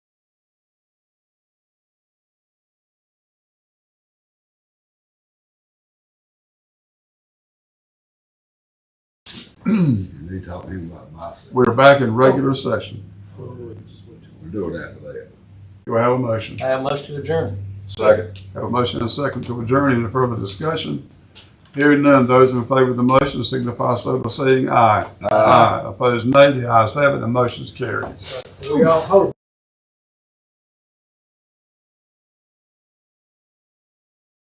And they talked to him about myself. We're back in regular session. We're doing that for that. Do I have a motion? I have much to adjourn. Second. Have a motion and a second to adjourn. Any further discussion? Hearing none, those in favor of the motion signify so by saying aye. Aye. Opposed, nay. The ayes have it, the motion's carried. We all hope.